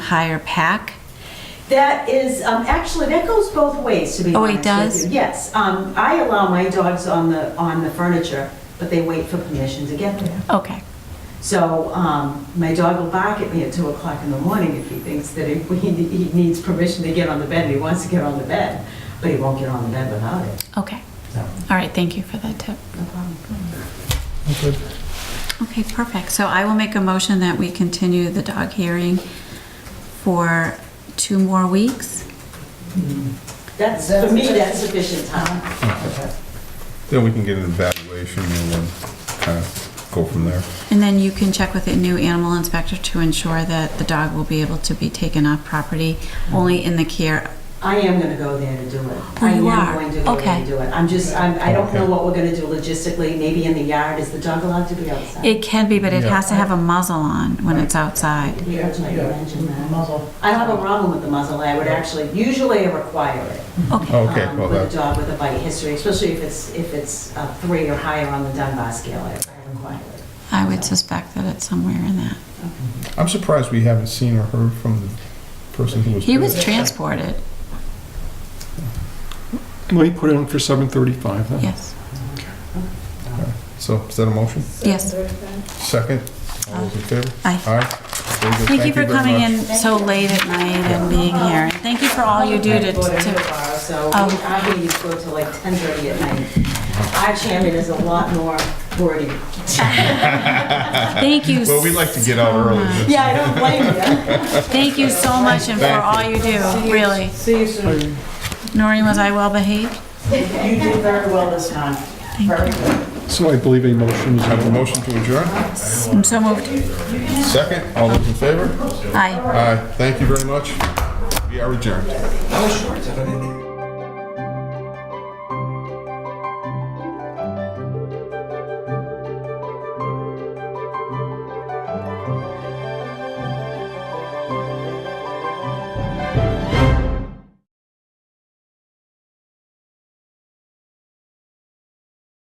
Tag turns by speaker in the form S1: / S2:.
S1: entire pack?
S2: That is, um, actually, that goes both ways, to be
S1: Oh,
S2: honest
S1: it
S2: with
S1: does?
S2: you. Yes, um, I allow my dogs on the, on the furniture, but they wait for permission to get there.
S1: Okay.
S2: So, um, my dog will bark at me at two o'clock in the morning if he thinks that he, he he needs permission to get on the bed, and he wants to get on the bed, but he won't get on the bed without it,
S1: Okay.
S2: so,
S1: All right, thank you for that tip.
S2: no problem.
S3: Okay.
S1: Okay, perfect. So I will make a motion that we continue the dog hearing for two more weeks.
S2: That's, for me, that's sufficient time.
S4: Then we can get an evaluation and then kind of go from there.
S1: And then you can check with the new animal inspector to ensure that the dog will be able to be taken off property only in the care.
S2: I am gonna go there to do it.
S1: Oh, you
S2: I
S1: are?
S2: am going to go there
S1: Okay.
S2: to do it. I'm just, I'm, I don't know what we're gonna do logistically, maybe in the yard, is the dog allowed to be outside?
S1: It can be, but it has to have a muzzle on when it's outside.
S2: We originally
S3: Yeah,
S2: mentioned that.
S3: Muzzle.
S2: I don't have a problem with the muzzle, I would actually, usually I require it.
S1: Okay,
S4: Okay,
S2: um,
S4: well,
S2: With a
S4: that,
S2: dog with a bite history, especially if it's, if it's uh, three or higher on the Dunbar scale, I I require it.
S1: I would suspect that it's somewhere in that.
S4: I'm surprised we haven't seen or heard from the person who was.
S1: He was
S4: bit.
S1: transported,
S3: Well, you put it on for 7:35 then.
S1: yes,
S4: So is that a motion?
S1: yes.
S4: Second? All those in favor?
S1: Aye.
S4: Aye. Very good.
S1: Thank you for
S4: very
S1: coming
S4: much.
S1: in so late at night and being here. And Thank you for all you do to,
S2: I voted
S1: to
S2: tomorrow, So
S1: Oh.
S2: we- I'm gonna use go till like ten thirty at night. Our chairman is a lot more wordy.
S1: Thank you.
S4: Well, we like to get out
S1: so
S4: early.
S1: much.
S2: Yeah, I don't blame you.
S1: Thank you so much and for
S4: Thank
S1: all you do, really.
S5: See you soon.
S1: Noreen, was I well behaved?
S5: You did very well this time. Very good.
S3: So I believe a motion is.
S4: I Have a motion to adjourn?
S1: I'm so moved.
S4: Second? All those in favor?
S1: Aye.
S4: Aye. Thank you very much. We are adjourned.